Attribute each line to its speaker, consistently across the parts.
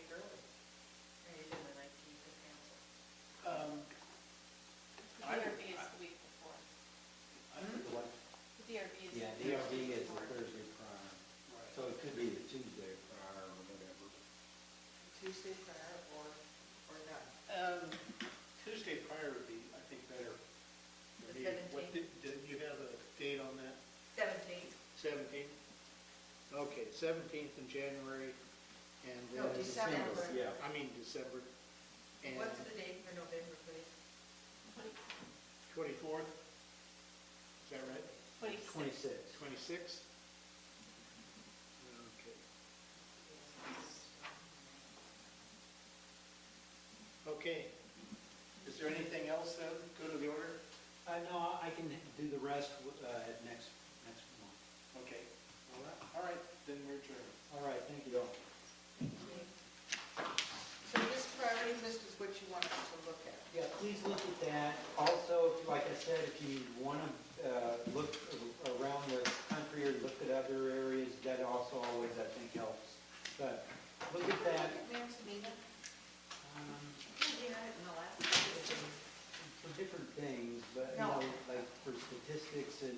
Speaker 1: Um,
Speaker 2: Tuesday prior or, or not?
Speaker 1: Um, Tuesday prior would be, I think, better. for
Speaker 3: The
Speaker 1: me. What did- Did you have a date on that?
Speaker 3: Seventeenth,
Speaker 1: Seventeenth? Okay, seventeenth in January and
Speaker 2: No,
Speaker 1: then,
Speaker 2: December.
Speaker 4: Yeah,
Speaker 1: I mean, December. And
Speaker 3: what's the date for November, please?
Speaker 1: twenty-fourth? Is that right?
Speaker 4: twenty-six.
Speaker 1: Twenty-sixth? Okay. Okay. Is there anything else that go to the order?
Speaker 4: Uh, no, I can do the rest, uh, at next, next month.
Speaker 1: Okay. All right, all right, then we're adjourned.
Speaker 4: All right, thank you all.
Speaker 2: So this priority list is what you want us to look at.
Speaker 4: Yeah, please look at that. Also, like I said, if you want to look a- around the country or look at other areas, that also always, I think, helps. But look at
Speaker 2: Look
Speaker 4: that.
Speaker 2: at Manzanita.
Speaker 4: um,
Speaker 3: Yeah, in the last meeting.
Speaker 4: for different things, but, you
Speaker 2: No.
Speaker 4: know, like for statistics and,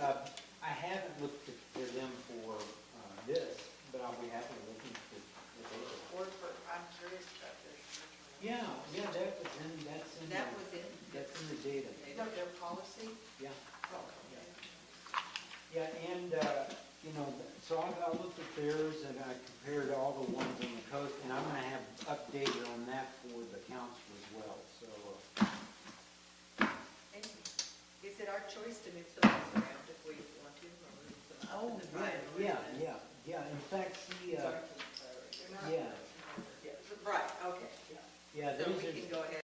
Speaker 4: uh, I haven't looked at- for them for uh, this, but I'll be happy to look into the data.
Speaker 2: Or for, I'm curious about their short
Speaker 4: Yeah, yeah, that was in, that's in,
Speaker 3: That
Speaker 4: the-
Speaker 3: was it.
Speaker 4: that's in the data,
Speaker 2: No, their policy?
Speaker 4: yeah.
Speaker 2: Oh,
Speaker 4: Yeah. Yeah, and, uh, you know, so I, I looked at theirs and I compared all the ones on the coast, and I'm gonna have updated on that for the council as well, so, uh,
Speaker 3: Thank you. Is it our choice to mix the ones around if we want to, or is it? up to
Speaker 4: Oh,
Speaker 3: the
Speaker 4: right,
Speaker 3: priority
Speaker 4: yeah,
Speaker 3: list?
Speaker 4: yeah, yeah, in fact, she, uh,
Speaker 2: They're not-
Speaker 4: yeah,
Speaker 3: Yeah, Right, okay.
Speaker 4: yeah,
Speaker 3: So
Speaker 4: these
Speaker 3: we
Speaker 4: are.
Speaker 3: can go ahead